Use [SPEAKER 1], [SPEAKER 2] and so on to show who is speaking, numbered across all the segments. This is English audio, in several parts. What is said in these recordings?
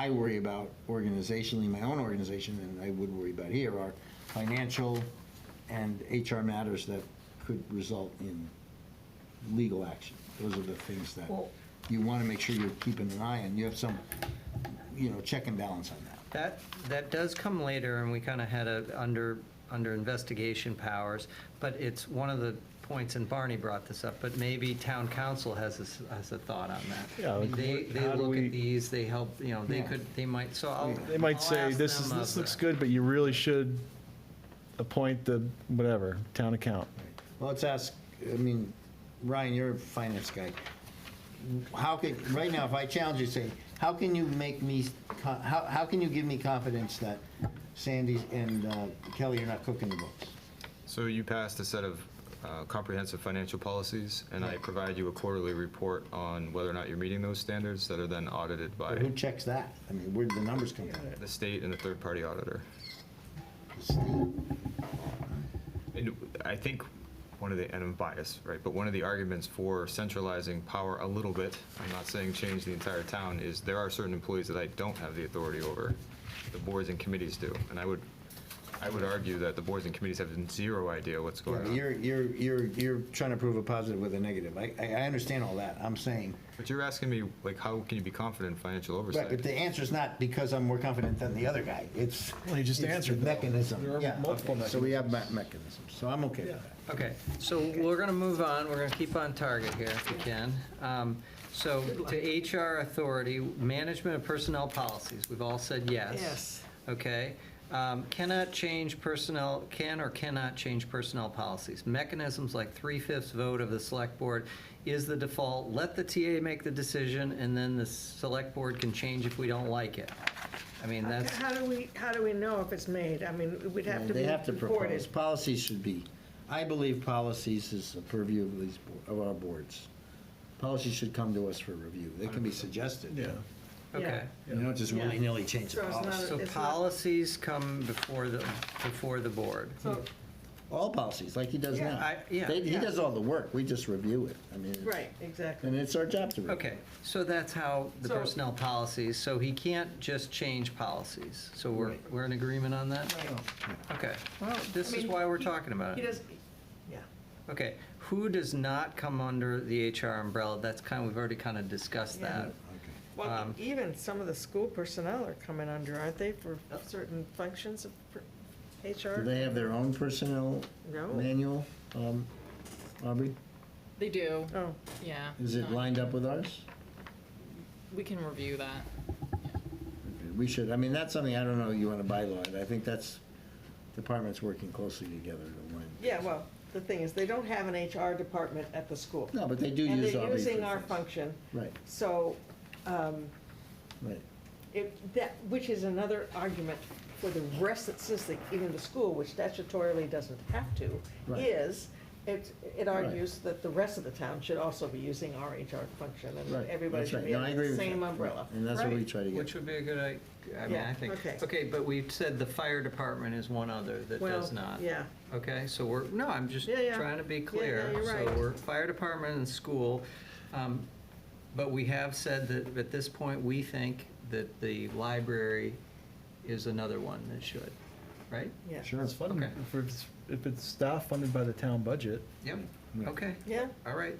[SPEAKER 1] I worry about organizationally, my own organization, and I would worry about here, are financial and HR matters that could result in legal action. Those are the things that
[SPEAKER 2] Well-
[SPEAKER 1] you want to make sure you're keeping an eye on. You have some, you know, check and balance on that.
[SPEAKER 2] That, that does come later, and we kind of had a, under, under investigation powers, but it's one of the points, and Barney brought this up, but maybe town council has a, s- has a thought on that.
[SPEAKER 3] Yeah, like,
[SPEAKER 2] They,
[SPEAKER 3] what-
[SPEAKER 2] they
[SPEAKER 3] how do
[SPEAKER 2] look
[SPEAKER 3] we-
[SPEAKER 2] at these, they help, you know, they
[SPEAKER 1] Yeah.
[SPEAKER 2] could, they might, so I'll.
[SPEAKER 3] They might
[SPEAKER 2] I'll
[SPEAKER 3] say,
[SPEAKER 2] ask
[SPEAKER 3] this is,
[SPEAKER 2] them
[SPEAKER 3] this
[SPEAKER 2] of
[SPEAKER 3] looks
[SPEAKER 2] the-
[SPEAKER 3] good, but you really should appoint the, whatever, town account.
[SPEAKER 1] Well, let's ask, I mean, Ryan, you're a finance guy. How can, right now, if I challenge you, say, how can you make me, co- how, how can you give me confidence that Sandy and uh, Kelly are not cooking the books?
[SPEAKER 4] So you passed a set of uh, comprehensive financial policies, and I provide you a quarterly report on whether or not you're meeting those standards that are then audited
[SPEAKER 1] But
[SPEAKER 4] by
[SPEAKER 1] Who checks that? I mean, where did the numbers come from?
[SPEAKER 4] the state and a third-party auditor.
[SPEAKER 1] The state?
[SPEAKER 4] And I think one of the, and I'm biased, right, but one of the arguments for centralizing power a little bit, I'm not saying change the entire town, is there are certain employees that I don't have the authority over. The boards and committees do. And I would, I would argue that the boards and committees have zero idea what's
[SPEAKER 1] Yeah,
[SPEAKER 4] going
[SPEAKER 1] but
[SPEAKER 4] on.
[SPEAKER 1] You're, you're, you're, you're trying to prove a positive with a negative. I, I I understand all that. I'm saying,
[SPEAKER 4] But you're asking me, like, how can you be confident in financial oversight?
[SPEAKER 1] right, but the answer's not because I'm more confident than the other guy. It's.
[SPEAKER 3] Well, he just
[SPEAKER 1] it's the
[SPEAKER 3] answered, though.
[SPEAKER 1] Mechanism.
[SPEAKER 3] There are
[SPEAKER 1] Yeah,
[SPEAKER 3] multiple
[SPEAKER 1] okay. So we have me- mechanisms. So I'm okay with that.
[SPEAKER 2] Okay, so we're gonna move on, we're gonna keep on target here if we can. Um, So to HR authority, management of personnel policies, we've all said yes.
[SPEAKER 5] Yes.
[SPEAKER 2] Okay, Um, cannot change personnel, can or cannot change personnel policies. Mechanisms like three-fifths vote of the select board is the default, let the TA make the decision, and then the select board can change if we don't like it. I mean, that's,
[SPEAKER 5] How do we, how do we know if it's made? I mean, we'd have to
[SPEAKER 1] They
[SPEAKER 5] be
[SPEAKER 1] have to propose.
[SPEAKER 5] reported.
[SPEAKER 1] Policies should be, I believe policies is the purview of these, bo- of our boards. Policies should come to us for review. They can be suggested.
[SPEAKER 2] okay.
[SPEAKER 1] You don't just
[SPEAKER 5] Yeah.
[SPEAKER 1] willy-nilly change the
[SPEAKER 5] So it's not
[SPEAKER 1] policy.
[SPEAKER 5] a-
[SPEAKER 2] So
[SPEAKER 5] It's not-
[SPEAKER 2] policies come before the, before the board.
[SPEAKER 5] So,
[SPEAKER 1] All policies, like he does
[SPEAKER 5] Yeah.
[SPEAKER 1] now.
[SPEAKER 2] I- yeah.
[SPEAKER 1] They- He
[SPEAKER 5] Yeah.
[SPEAKER 1] does all the work. We just review it. I mean. it's-
[SPEAKER 5] right,
[SPEAKER 1] And
[SPEAKER 5] exactly.
[SPEAKER 1] it's our job to review.
[SPEAKER 2] Okay, so that's how the
[SPEAKER 5] So-
[SPEAKER 2] personnel policies, so he can't just change policies. So we're,
[SPEAKER 1] Right.
[SPEAKER 2] we're in agreement on that?
[SPEAKER 5] Right.
[SPEAKER 2] Okay, well, this
[SPEAKER 5] I
[SPEAKER 2] is
[SPEAKER 5] mean,
[SPEAKER 2] why we're
[SPEAKER 5] he-
[SPEAKER 2] talking about
[SPEAKER 5] He
[SPEAKER 2] it.
[SPEAKER 5] does, yeah.
[SPEAKER 2] Okay, who does not come under the HR umbrella? That's kind, of we've already kind of discussed
[SPEAKER 5] Yeah.
[SPEAKER 2] that.
[SPEAKER 1] Okay.
[SPEAKER 5] Well,
[SPEAKER 2] Um,
[SPEAKER 5] even some of the school personnel are coming under, aren't they, for
[SPEAKER 2] Oh.
[SPEAKER 5] certain functions of per-
[SPEAKER 1] Do
[SPEAKER 5] HR?
[SPEAKER 1] they have their own personnel
[SPEAKER 5] No.
[SPEAKER 1] manual, um, Aubrey?
[SPEAKER 6] They do,
[SPEAKER 5] Oh,
[SPEAKER 6] yeah.
[SPEAKER 1] Is it
[SPEAKER 6] No,
[SPEAKER 1] lined up with ours?
[SPEAKER 6] We can review that.
[SPEAKER 1] We should, I mean, that's something, I don't know, you want to bylaw it. I think that's departments working closely together to win.
[SPEAKER 5] yeah, well, the thing is, they don't have an HR department at the school.
[SPEAKER 1] No, but they do
[SPEAKER 5] And
[SPEAKER 1] use
[SPEAKER 5] they're
[SPEAKER 1] Aubrey. for
[SPEAKER 5] using our
[SPEAKER 1] things.
[SPEAKER 5] function,
[SPEAKER 1] Right,
[SPEAKER 5] so, um,
[SPEAKER 1] right.
[SPEAKER 5] It, that, which is another argument for the rest that says that even the school, which statutorily doesn't have to,
[SPEAKER 1] Right.
[SPEAKER 5] is, it, it
[SPEAKER 1] Right.
[SPEAKER 5] argues that the rest of the town should also be using our HR function
[SPEAKER 1] Right,
[SPEAKER 5] and everybody
[SPEAKER 1] that's
[SPEAKER 5] should
[SPEAKER 1] right.
[SPEAKER 5] be
[SPEAKER 1] No, I
[SPEAKER 5] under
[SPEAKER 1] agree
[SPEAKER 5] the
[SPEAKER 1] with you.
[SPEAKER 5] same
[SPEAKER 1] Right.
[SPEAKER 5] umbrella.
[SPEAKER 1] And that's what we
[SPEAKER 2] Right.
[SPEAKER 1] try to
[SPEAKER 2] Which
[SPEAKER 1] get.
[SPEAKER 2] would be a good, i- I mean, I
[SPEAKER 5] Yeah,
[SPEAKER 2] think.
[SPEAKER 5] okay.
[SPEAKER 2] Okay, but we said the fire department is one other that
[SPEAKER 5] Well,
[SPEAKER 2] does not.
[SPEAKER 5] Yeah,
[SPEAKER 2] Okay, so we're, no, I'm just
[SPEAKER 5] Yeah, yeah.
[SPEAKER 2] trying to be
[SPEAKER 5] Yeah, yeah,
[SPEAKER 2] clear.
[SPEAKER 5] you're right.
[SPEAKER 2] So we're fire department and school, um, but we have said that at this point, we think that the library is another one that should, right?
[SPEAKER 5] yeah.
[SPEAKER 1] Sure.
[SPEAKER 3] It's funded,
[SPEAKER 2] Okay.
[SPEAKER 3] if it's, if it's staff funded by the town budget.
[SPEAKER 2] Yep, okay,
[SPEAKER 5] Yeah,
[SPEAKER 2] all right.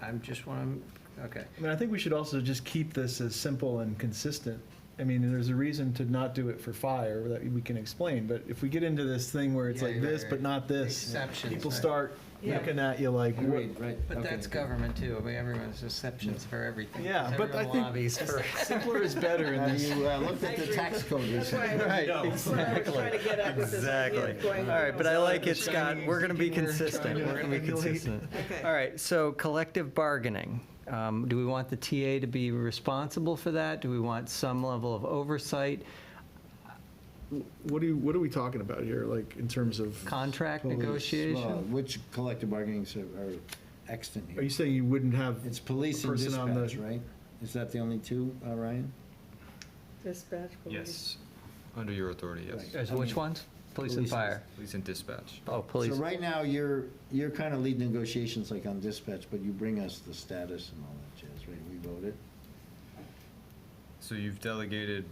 [SPEAKER 2] I'm just want to, okay.
[SPEAKER 3] I mean, I think we should also just keep this as simple and consistent. I mean, there's a reason to not do it for fire that we can explain, but if we get into this thing where it's
[SPEAKER 2] Yeah,
[SPEAKER 3] like
[SPEAKER 2] you're right,
[SPEAKER 3] this,
[SPEAKER 2] right.
[SPEAKER 3] but not this,
[SPEAKER 2] Exceptions,
[SPEAKER 3] people
[SPEAKER 2] right.
[SPEAKER 3] start
[SPEAKER 5] Yeah.
[SPEAKER 3] looking at you like, what?
[SPEAKER 1] Agreed, right.
[SPEAKER 2] But
[SPEAKER 1] okay,
[SPEAKER 2] that's
[SPEAKER 1] okay.
[SPEAKER 2] government too, I mean, everyone's exceptions for everything.
[SPEAKER 3] Yeah, but
[SPEAKER 2] Everyone
[SPEAKER 3] I think-
[SPEAKER 2] lobbies for.
[SPEAKER 3] Simpler is better in
[SPEAKER 1] Have
[SPEAKER 3] this.
[SPEAKER 1] you uh, looked
[SPEAKER 5] I
[SPEAKER 1] at the
[SPEAKER 5] agree.
[SPEAKER 1] tax code
[SPEAKER 5] that's why
[SPEAKER 1] recently?
[SPEAKER 5] I
[SPEAKER 3] Right,
[SPEAKER 5] was- that's what I was trying to get at with this idea of
[SPEAKER 2] Exactly.
[SPEAKER 5] going.
[SPEAKER 2] All right, but I like it, Scott.
[SPEAKER 3] Chinese
[SPEAKER 2] We're going to be
[SPEAKER 3] skinner,
[SPEAKER 2] consistent.
[SPEAKER 3] Chinese
[SPEAKER 2] We're going to be
[SPEAKER 3] skinner.
[SPEAKER 2] consistent.
[SPEAKER 5] Okay.
[SPEAKER 2] All right, so collective bargaining. Um, Do we want the TA to be responsible for that? Do we want some level of oversight,
[SPEAKER 3] What do you, what are we talking about here, like, in terms of?
[SPEAKER 2] contract
[SPEAKER 1] Police, well,
[SPEAKER 2] negotiation?
[SPEAKER 1] Which collective bargaining are extant
[SPEAKER 3] Are
[SPEAKER 1] here?
[SPEAKER 3] you saying you wouldn't have?
[SPEAKER 1] It's police and
[SPEAKER 3] person on the-
[SPEAKER 1] dispatch, right? Is that the only two, uh, Ryan?
[SPEAKER 5] Dispatch. police.
[SPEAKER 4] Yes, under your authority, yes.
[SPEAKER 1] Right.
[SPEAKER 2] As Which ones? Police and fire?
[SPEAKER 4] Police and dispatch.
[SPEAKER 2] Oh, police.
[SPEAKER 1] So right now, you're, you're kind of lead negotiations like on dispatch, but you bring us the status and all that jazz, right? We vote it.
[SPEAKER 4] So you've delegated